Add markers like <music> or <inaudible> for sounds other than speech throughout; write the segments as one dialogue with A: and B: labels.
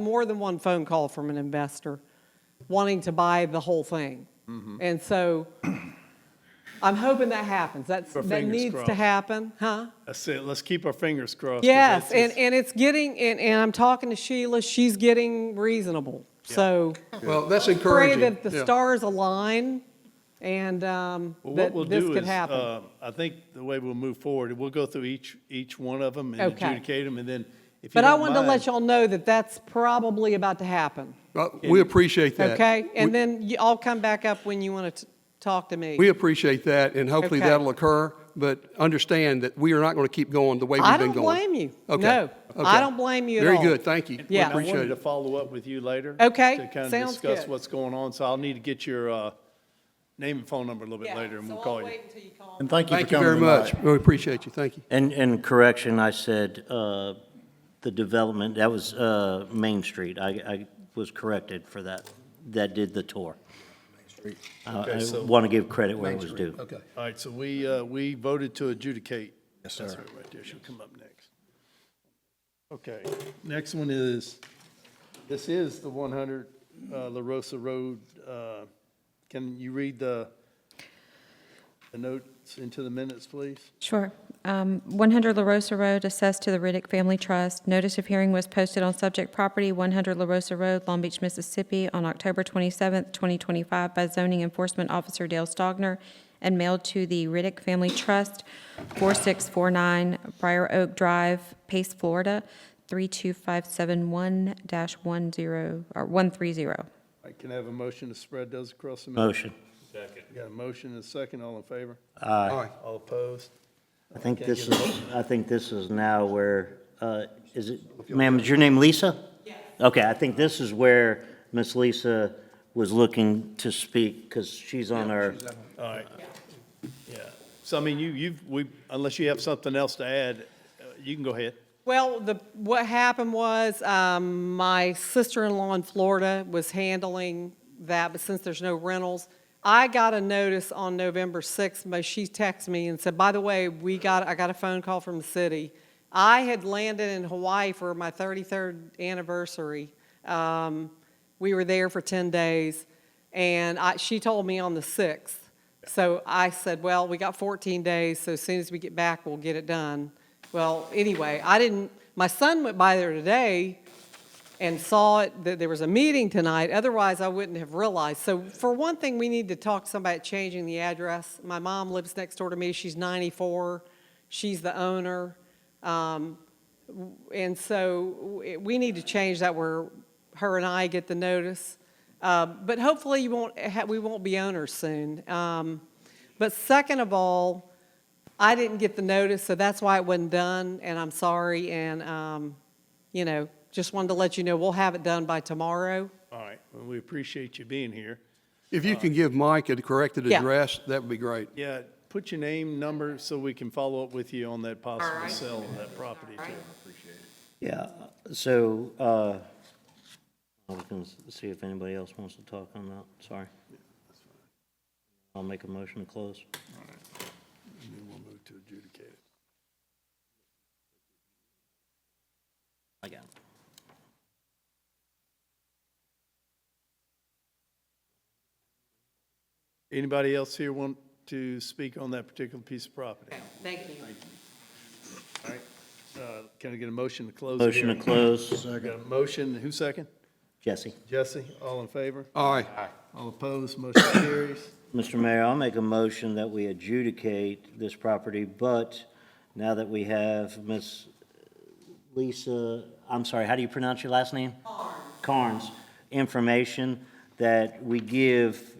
A: more than one phone call from an investor wanting to buy the whole thing.
B: Mm-hmm.
A: And so <clears throat> I'm hoping that happens. That's,
B: Our
A: that
B: fingers
A: needs to
B: crossed.
A: happen, huh?
B: That's it. Let's keep our fingers crossed. 'cause
A: Yes,
B: it's- it's-
A: and, and it's getting, and, and I'm talking to Sheila, she's getting reasonable. So
C: Well, that's
A: pray
C: encouraging.
A: that the
C: yeah.
A: stars align and um,
B: Well,
A: that
B: what we'll
A: this
B: do
A: could
B: is,
A: happen.
B: uh, I think the way we'll move forward, we'll go through each, each one of them and
A: Okay.
B: adjudicate them, and then if you
A: But I
B: don't
A: wanted to let
B: mind,
A: y'all know that that's probably about to happen,
C: Uh, We appreciate that.
A: okay? And
C: We-
A: then you- I'll come back up when you want to talk to me.
C: We appreciate that, and hopefully
A: Okay.
C: that'll occur, but understand that we are not going to keep going the way we've
A: I
C: been
A: don't
C: going.
A: blame you.
C: Okay.
A: No, I
C: Okay.
A: don't blame you at all.
C: Very good, thank you. We
A: Yeah.
B: I wanted
C: Appreciate
B: to
C: it.
B: follow up with you later.
A: Okay,
B: To kind of
A: sounds
B: discuss
A: good.
B: what's going on, so I'll need to get your uh, name and phone number a little bit
A: Yeah,
B: later, and
A: so
B: we'll
A: I'll
B: call you.
A: wait until you call me.
D: And thank you for
C: Thank you
D: coming
C: very much.
D: tonight.
C: We appreciate you, thank you.
E: And, and correction, I said, uh, the development, that was, uh, Main Street. I, I was corrected for that, that did the tour. Uh,
B: Okay,
E: I
B: so-
E: want to give credit where it was due.
C: Okay.
B: All right, so we, uh, we voted to adjudicate. Yes,
D: sir.
B: That's her right there, she'll come up next. Okay, next one is, this is the 100 uh, La Rosa Road. uh, Can you read the, the notes into the minutes, please?
F: Sure. Um, 100 La Rosa Road assessed to the Riddick Family Trust. Notice of hearing was posted on subject property, 100 La Rosa Road, Long Beach, Mississippi, on October 27th, 2025, by zoning enforcement officer Dale Stogner, and mailed to the Riddick Family Trust, 4649 Briar Oak Drive, Pace, Florida, 32571-10, or 130.
B: All right, Can I have a motion to spread those across the minutes?
E: Motion.
B: Got a motion and a second, all in favor?
C: All right.
B: All opposed?
E: I think this is, I think this is now where, uh, is it, ma'am, is your name Lisa? Yes. Okay, I think this is where Miss Lisa was looking to speak, because she's on our,
B: All right. Yeah, so I mean, you, you've, we, unless you have something else to add, uh, you can go ahead.
A: Well, the, what happened was, um, my sister-in-law in Florida was handling that, but since there's no rentals, I got a notice on November 6th, but she texted me and said, by the way, we got, I got a phone call from the city. I had landed in Hawaii for my 33rd anniversary. Um, we were there for 10 days, and I, she told me on the 6th. So I said, well, we got 14 days, so as soon as we get back, we'll get it done. Well, anyway, I didn't, my son went by there today and saw it, that there was a meeting tonight, otherwise I wouldn't have realized. So for one thing, we need to talk to somebody about changing the address. My mom lives next door to me, she's 94, she's the owner. Um, w- And so w- we need to change that where her and I get the notice. Uh, But hopefully you won't, ha- we won't be owners soon. Um, But second of all, I didn't get the notice, so that's why it wasn't done, and I'm sorry, and, um, you know, just wanted to let you know, we'll have it done by tomorrow.
B: All right, well, we appreciate you being here.
C: If you can give Mike a corrected
A: Yeah.
C: address, that would be great.
B: Yeah, put your name, number, so we can follow up with you on that possible
A: right.
B: sale of that property. too.
E: yeah, so, uh, I was going to see if anybody else wants to talk on that, sorry. I'll make a motion to close.
B: And then we'll move to adjudicate it.
E: I got it.
B: Anybody else here want to speak on that particular piece of property?
A: Thank you.
B: All right, uh, can I get a motion to close? the
E: Motion to
B: hearing?
E: close,
B: Got a motion, who second?
E: Jesse.
B: Jesse, all in favor?
C: All right,
B: All opposed, motion carries.
E: Mr. Mayor, I'll make a motion that we adjudicate this property, but now that we have Miss Lisa, I'm sorry, how do you pronounce your last name? Carnes. information that we give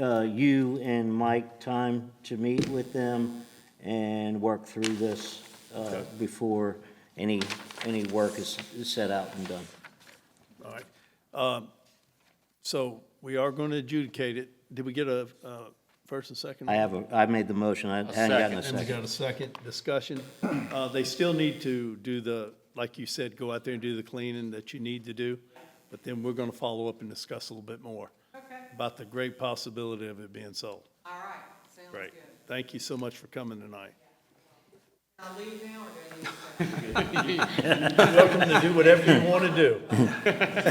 E: uh, you and Mike time to meet with them and work through this uh, before any, any work is is set out and done.
B: All right, um, so we are going to adjudicate it. Did we get a uh, first and second?
E: I have, a I made the motion, I hadn't gotten a
B: And we
E: second.
B: got a second discussion. Uh, They still need to do the, like you said, go out there and do the cleaning that you need to do, but then we're going to follow up and discuss a little bit more
A: Okay,
B: about the great possibility of it being sold.
A: all right, sounds <laughs>
B: Thank you so much for coming tonight.
A: I leave now, or do I need to-
B: Welcome to do whatever you want to do.